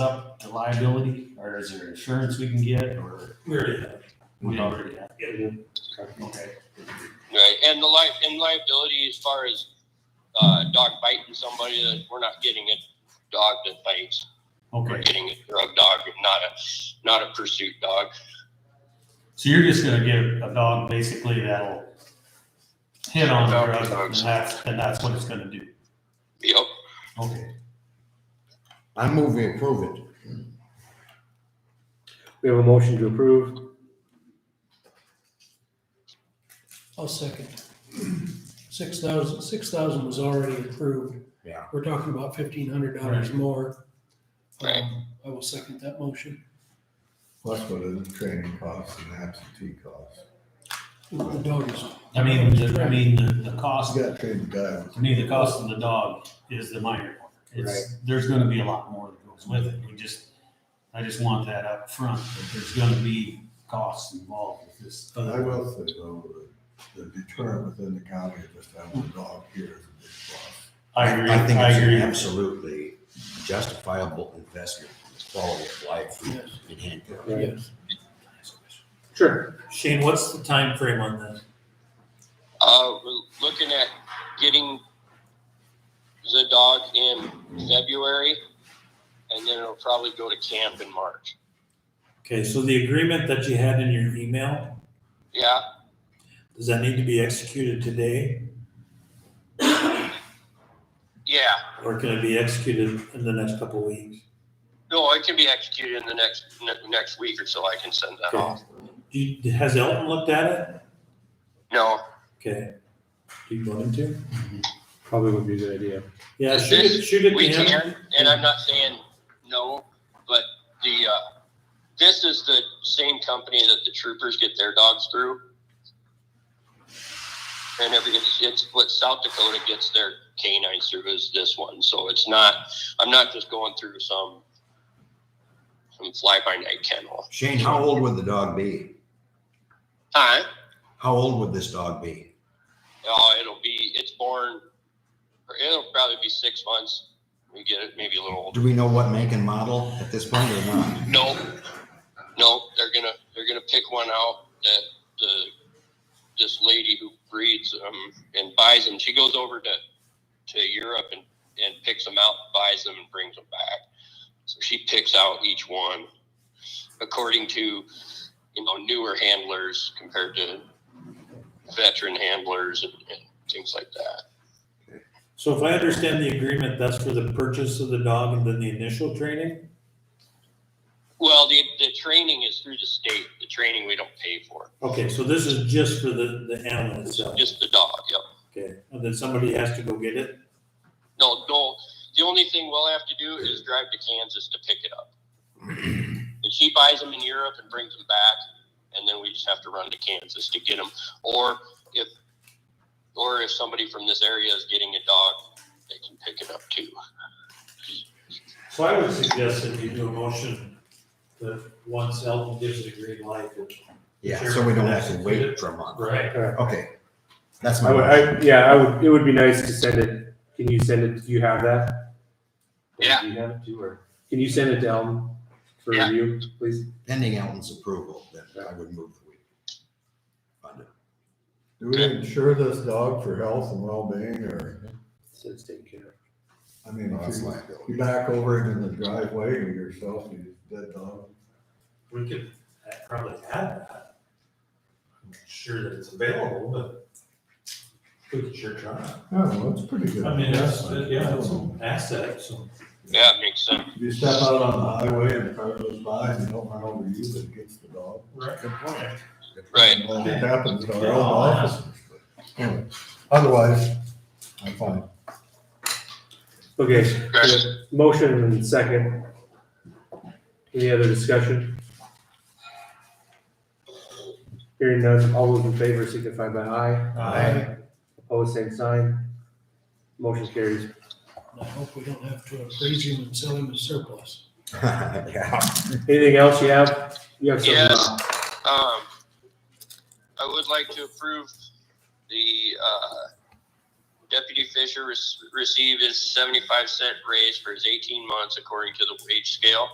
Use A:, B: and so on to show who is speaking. A: up the liability, or is there insurance we can get, or
B: We already have.
A: we don't already have?
B: Yeah.
A: Okay.
C: Right, and the li- and liability as far as uh, dog biting somebody, that we're not getting a dog that bites. We're
A: Okay,
C: getting a drug dog, not a not a pursuit dog.
A: so you're just gonna get a dog basically that'll hit on the
C: Dog
A: drug, and
C: dogs.
A: that's, and that's what it's gonna do.
C: Yep.
A: Okay,
D: I move we approve it.
E: We have a motion to approve.
B: I'll second. Six thousand, six thousand was already approved.
D: Yeah.
B: We're talking about fifteen hundred dollars more.
C: Right.
B: Um, I will second that motion.
D: Plus what are the training costs and absentee costs?
B: The dog is,
A: I mean, the, I mean, the, the cost,
D: You gotta train the guy.
A: to me, the cost of the dog is the minor part. It's, there's gonna be a lot more that goes with it, we just, I just want that up front. that there's gonna be costs involved with this.
D: I will say though, the the deterrent within the county of just having a dog here is a big plus.
A: I agree,
F: I think
A: I
F: it's an
A: agree.
F: absolutely justifiable investment in the quality of life
B: yes,
F: in handcuffs.
B: yes.
E: Sure.
G: Shane, what's the time frame on this?
C: Uh, we're looking at getting the dog in February, and then it'll probably go to camp in March.
G: Okay, so the agreement that you had in your email,
C: Yeah,
G: does that need to be executed today?
C: yeah.
G: Or can it be executed in the next couple of weeks?
C: No, it can be executed in the next ne- next week or so. I can send that off.
G: Do you, has Elton looked at it?
C: No,
G: Okay. Do you want him to?
E: Probably would be a good idea.
G: Yeah,
C: Is
G: shoot it,
C: this-
G: shoot it
C: We
G: to him.
C: can, and I'm not saying no, but the, uh, this is the same company that the troopers get their dogs through. And every, it's, it's what South Dakota gets their canines through is this one, so it's not, I'm not just going through some, some fly-by-night kennel.
F: Shane, how old would the dog be?
C: Alright,
F: How old would this dog be?
C: oh, it'll be, it's born, or it'll probably be six months, we get it, maybe a little older.
F: Do we know what make and model at this point or not?
C: No, no, they're gonna they're gonna pick one out that the this lady who breeds them and buys them. She goes over to to Europe and and picks them out, buys them, and brings them back. So she picks out each one according to you know newer handlers compared to veteran handlers and, and things like that.
G: So if I understand the agreement, that's for the purchase of the dog and then the initial training?
C: Well, the the training is through the state. The training we don't pay for,
G: Okay, so this is just for the, the animal itself.
C: just the dog. Yep.
G: Okay, and then somebody has to go get it?
C: No, no. The only thing we'll have to do is drive to Kansas to pick it up. And she buys them in Europe and brings them back, and then we just have to run to Kansas to get them. Or if, or if somebody from this area is getting a dog, they can pick it up too.
G: So I would suggest that you do a motion that once Elton gives it a green light, that
F: Yeah, so we don't have to wait for a month.
G: Right.
F: Okay, that's my.
E: I would, I, yeah, I would, it would be nice to send it. Can you send it, do you have that?
C: Yeah.
E: Do you have it too, or, can you send it to Elm for
C: Yeah.
E: review, please?
F: Pending Elton's approval, then I would move that we fund it.
D: Do we insure this dog for health and well-being or,
E: So it's taken care of.
D: I mean,
F: No, that's
D: if you,
F: liability.
D: you back over it in the driveway or yourself, you dead dog.
G: We could uh, probably add that. I'm not sure that it's available, but we could sure try.
D: I don't know, it's pretty good.
G: I mean, that's, yeah, it's
D: You
G: an asset, so.
C: Yeah, it makes sense.
D: step out on the highway and the car goes by and you don't run over you, but it gets the dog.
G: Right.
C: Right.
D: Well, It happens to our own officers. but anyway, Otherwise, I'm fine.
E: Okay, we have motion and second. Any other discussion? Hearing none, all those in favor signify by aye.
D: Aye.
E: Opposed, same sign. Motion carries.
B: And I hope we don't have to appraise him and sell him as surplus.
F: Yeah.
E: Anything else you have? You have something?
C: Yes. Um, I would like to approve the, uh, Deputy Fisher rec- received his seventy-five cent raise for his eighteen months according to the wage scale.